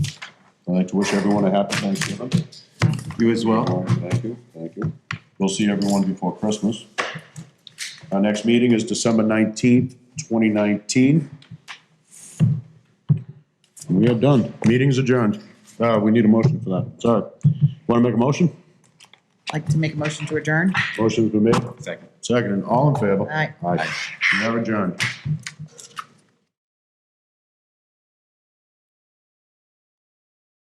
I'd like to wish everyone a happy Thanksgiving. You as well? All right, Thank you, thank you. We'll see everyone before Christmas. Our next meeting is December nineteenth, twenty nineteen. We are done. Meeting's adjourned. Uh, we need a motion for that. Sorry. Want to make a motion? Like to make a motion to adjourn? Motion's been made. Second. Second, and all in favor? Aye. Aye. We are adjourned.